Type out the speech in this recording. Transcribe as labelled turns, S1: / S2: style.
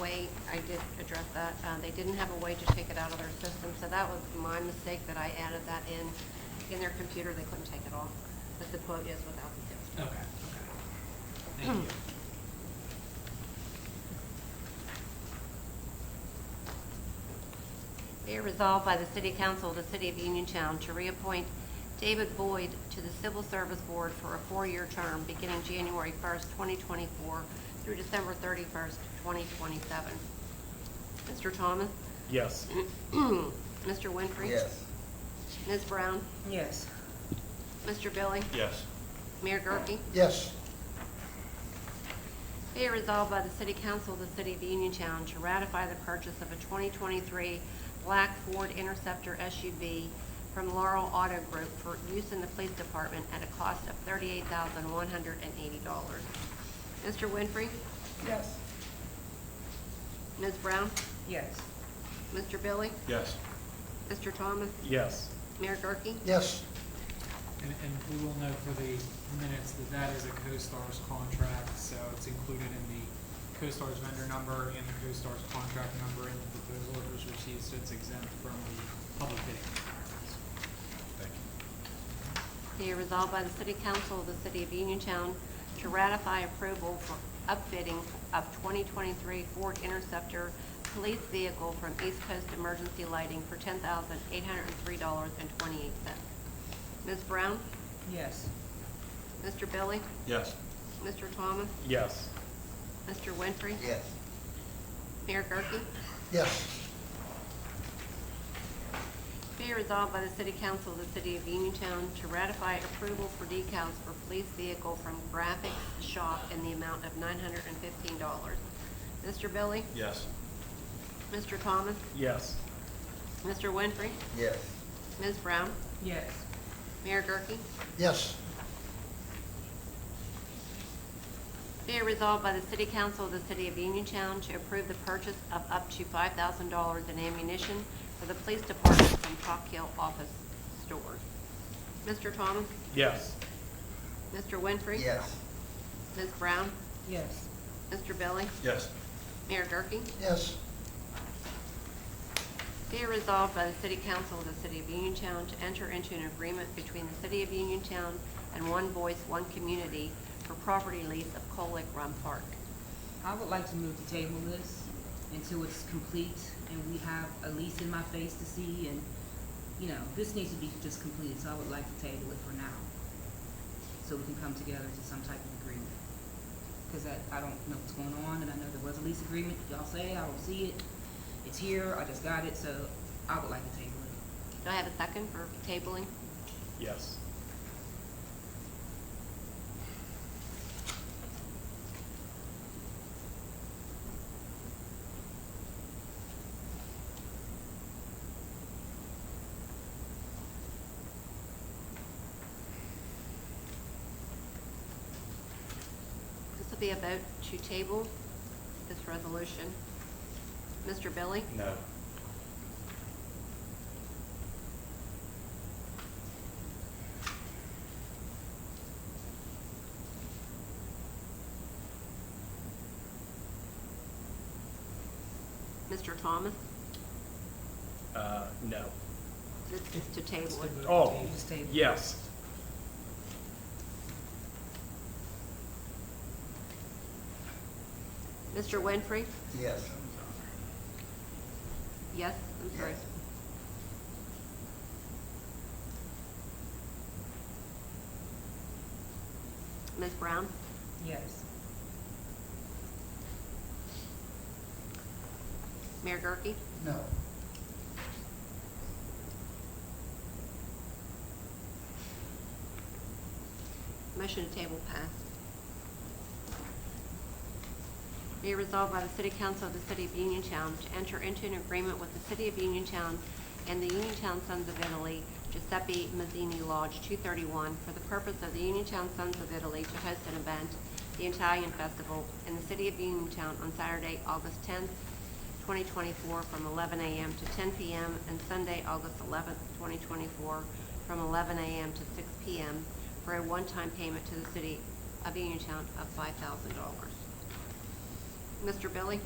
S1: way, I did address that, uh, they didn't have a way to take it out of their system, so that was my mistake that I added that in, in their computer, they couldn't take it off, but the quote is without the sales
S2: Okay, okay. Thank you.
S1: Be it resolved by the City Council of the City of Uniontown to reappoint David Boyd to the Civil Service Board for a four-year term beginning January 1st, 2024 through December 31st, 2027. Mr. Thomas?
S3: Yes.
S1: Mr. Winfrey?
S4: yes,
S1: Ms. Brown?
S5: yes,
S1: Mr. Billy?
S3: Yes.
S1: Mayor Gurke?
S4: yes,
S1: Be it resolved by the City Council of the City of Uniontown to ratify the purchase of a 2023 black Ford Interceptor SUV from Laurel Auto Group for use in the police department at a cost of $38,180. Mr. Winfrey?
S5: yes,
S1: Ms. Brown?
S5: yes,
S1: Mr. Billy?
S3: Yes.
S1: Mr. Thomas?
S3: Yes.
S1: Mayor Gurke?
S4: yes,
S2: And, and we will note for the minutes that that is a CoStarz contract, so it's included in the CoStarz vendor number and the CoStarz contract number and the proposal orders received, so it's exempt from the public bidding requirements.
S1: Be it resolved by the City Council of the City of Uniontown to ratify approval for upfitting of 2023 Ford Interceptor police vehicle from East Coast Emergency Lighting for $10,803.28. Ms. Brown?
S5: yes,
S1: Mr. Billy?
S3: Yes.
S1: Mr. Thomas?
S3: Yes.
S1: Mr. Winfrey?
S4: yes,
S1: Mayor Gurke?
S4: yes,
S1: Be resolved by the City Council of the City of Uniontown to ratify approval for decals for police vehicle from Graphic Shop in the amount of $915. Mr. Billy?
S3: Yes.
S1: Mr. Thomas?
S3: Yes.
S1: Mr. Winfrey?
S4: yes,
S1: Ms. Brown?
S5: yes,
S1: Mayor Gurke?
S4: yes,
S1: Be it resolved by the City Council of the City of Uniontown to approve the purchase of up to $5,000 in ammunition for the police department from Chalk Hill Office Store. Mr. Thomas?
S3: Yes.
S1: Mr. Winfrey?
S4: yes,
S1: Ms. Brown?
S5: yes,
S1: Mr. Billy?
S3: Yes.
S1: Mayor Gurke?
S4: yes,
S1: Be it resolved by the City Council of the City of Uniontown to enter into an agreement between the City of Uniontown and One Voice, One Community for property lease of Colick Run Park.
S5: I would like to move to table this until it's complete and we have a lease in my face to see and, you know, this needs to be just completed, so I would like to table it for now. So we can come together to some type of agreement. Cause I, I don't know what's going on and I know there was a lease agreement, y'all say, I don't see it, it's here, I just got it, so I would like to table it.
S1: Do I have a second for tabling?
S3: Yes.
S1: This will be a vote to table this resolution. Mr. Billy?
S3: No.
S1: Mr. Thomas?
S3: Uh, no.
S1: This is to table it.
S3: Oh,
S5: Just table.
S3: yes.
S1: Mr. Winfrey?
S4: yes,
S1: Yes, I'm sorry.
S4: Yes.
S1: Ms. Brown?
S5: Yes,
S1: Mayor Gurke?
S4: no,
S1: Motion to table passed. Be resolved by the City Council of the City of Uniontown to enter into an agreement with the City of Uniontown and the Uniontown Sons of Italy Giuseppe Mazzini Lodge 231 for the purpose of the Uniontown Sons of Italy to host an event, the Italian Festival, in the City of Uniontown on Saturday, August 10th, 2024, from 11 a.m. to 10 p.m., and Sunday, August 11th, 2024, from 11 a.m. to 6 p.m., for a one-time payment to the City of Uniontown of $5,000. Mr. Billy?